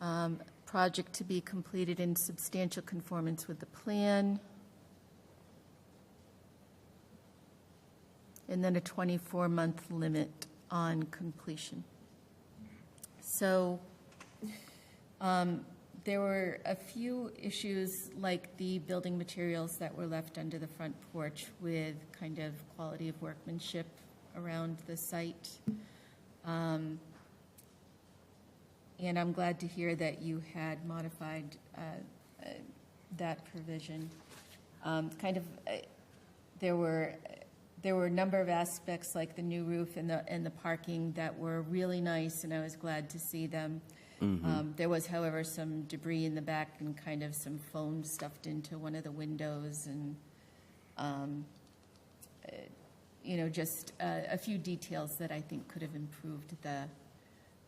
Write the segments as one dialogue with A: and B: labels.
A: Um, Project to be completed in substantial conformance with the plan. And then a 24-month limit on completion. So um, there were a few issues, like the building materials that were left under the front porch with kind of quality of workmanship around the site. Um, And I'm glad to hear that you had modified uh, uh, that provision. Um, Kind of, uh, there were, there were a number of aspects, like the new roof and the, and the parking, that were really nice, and I was glad to see them. Um, There was, however, some debris in the back and kind of some foam stuffed into one of the windows and, um, uh, you know, just uh, a few details that I think could have improved the,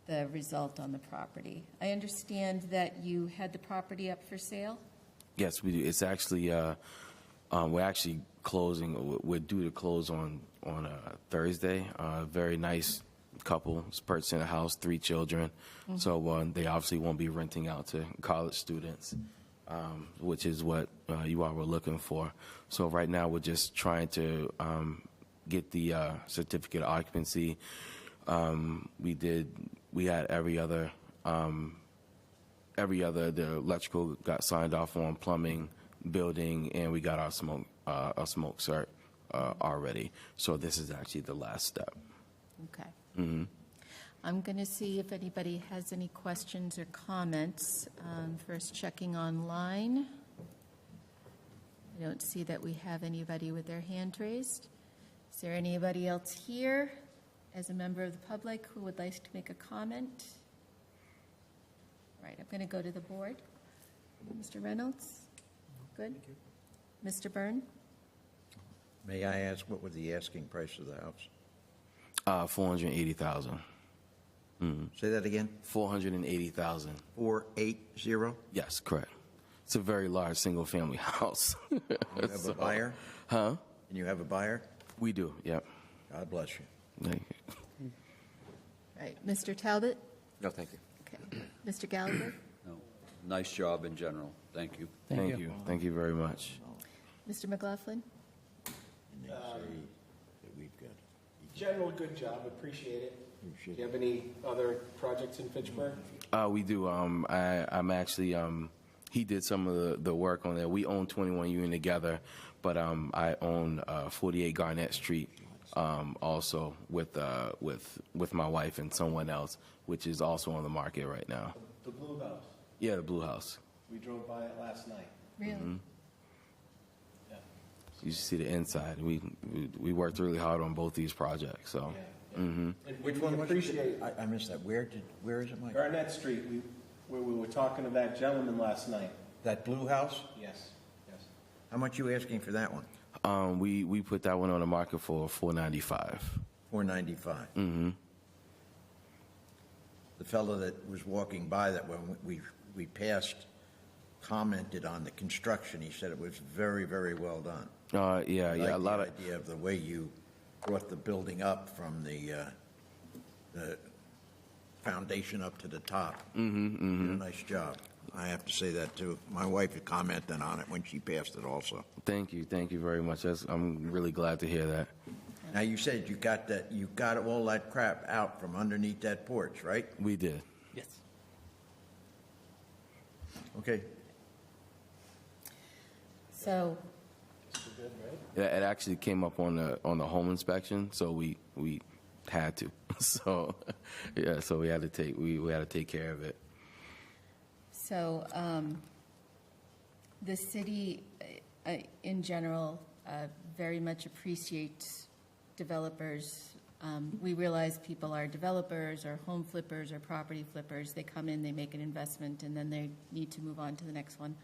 A: the result on the property. I understand that you had the property up for sale?
B: Yes, we do. It's actually, uh, um, we're actually closing, we're due to close on, on uh, Thursday. A very nice couple is purchasing a house, three children. So uh, they obviously won't be renting out to college students, um, which is what uh, you all were looking for. So right now, we're just trying to um, get the uh, certificate of occupancy. Um, We did, we had every other every other the electrical got signed off on plumbing building and we got our smoke uh, our smoke cert uh, already so this is actually the last step
A: Okay.
C: Mm-hmm.
A: I'm going to see if anybody has any questions or comments. Um, First, checking online. I don't see that we have anybody with their hand raised. Is there anybody else here as a member of the public who would like to make a comment? All right, I'm going to go to the board. Mr. Reynolds? Good? Mr. Byrne?
D: May I ask, what was the asking price of the house?
B: uh 480,000
D: Say that again?
B: 480,000
D: Four eight zero?
B: yes correct it's a very large single family house
D: You have a buyer?
B: huh
D: And you have a buyer?
B: we do yep
D: God bless you.
B: Thank you.
A: All Right, Mr. Talbot?
C: No, thank you.
A: Okay. Mr. Gallagher?
C: No. Nice job in general. Thank you.
B: thank, you. thank you very much
A: Mr. McLaughlin?
D: And they say that we've got,
E: General, good job, appreciate it. Do
D: Appreciate
E: you have any other projects in Fitchburg?
B: Uh, we do. Um, I, I'm actually. Um, he did some of the, the work on that. We own 21 Union together, but um, I own uh, 48 Garnett Street um, also with uh, with with my wife and someone else, which is also on the market right now.
E: The Blue House,
B: Yeah, the Blue House.
E: we drove by it last night.
A: Really?
B: You should see the inside. We, we we worked really hard on both these projects. So
E: And we appreciate
D: I, I missed that. Where did, where is it, Mike?
E: Garnett Street, we, where we were talking to that gentleman last night.
D: That blue house?
E: Yes, yes.
D: How much you asking for that one?
B: um, we we put that one on the market for 495.
D: Four ninety-five? Mm-hmm. The fellow that was walking by that when we, we passed commented on the construction. He said it was very, very well done.
B: Uh, yeah, yeah, a
D: like
B: lot
D: the
B: of
D: idea of the way you brought the building up from the, uh, the foundation up to the top.
B: Mm-hmm,
D: You did a nice job. I have to say that too. My wife had commented on it when she passed it also.
B: thank you, thank you very much. That's, I'm really glad to hear that.
D: Now, you said you got that, you got all that crap out from underneath that porch, right?
B: We did.
D: Okay.
A: So,
B: It, it actually came up on the on the home inspection, so we we had to. So yeah, so we had to take we, we had to take care of it.
A: So um, the city, uh, uh, in general, uh, very much appreciates developers. Um, We realize people are developers or home flippers or property flippers. They come in, they make an investment, and then they need to move on to the next one.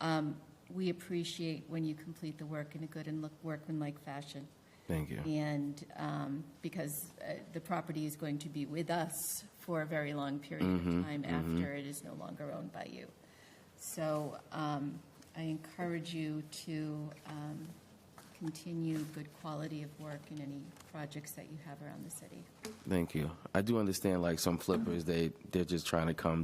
A: Um, We appreciate when you complete the work in a good and look workmanlike fashion.
B: Thank you.
A: And um, because uh, the property is going to be with us for a very long period of time after it is no longer owned by you. So um, I encourage you to um, continue good quality of work in any projects that you have around the city.
B: Thank you. I do understand like some flippers they they're just trying to come